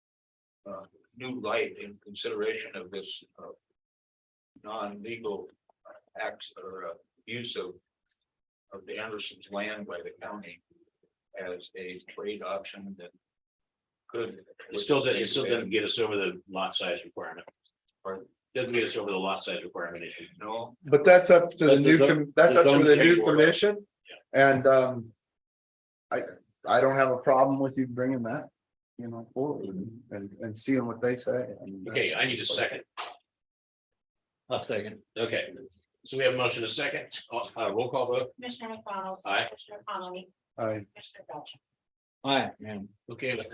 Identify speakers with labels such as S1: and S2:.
S1: uh, new light in consideration of this, uh. Non-legal acts or uh, use of. Of the Anderson's land by the county as a trade option that. Could.
S2: It still doesn't, it still doesn't get us over the lot size requirement. Or doesn't get us over the lot size requirement issue.
S1: No,
S3: But that's up to the
S2: But
S3: new,
S2: the zo-
S3: com- that's
S2: the
S3: up to
S2: zone
S3: the
S2: change
S3: new
S2: order.
S3: commission. And, um. I, I don't have a problem with you bringing that, you know, forward and- and, and seeing what they say. and, uh,
S2: Okay, I need a second.
S1: a second.
S2: Okay, so we have a motion a second, Uh, uh, roll call vote.
S4: Commissioner McDonald.
S2: Aye.
S4: Commissioner Connolly.
S3: I-
S4: Commissioner Belcher.
S1: Hi, man.
S2: Okay,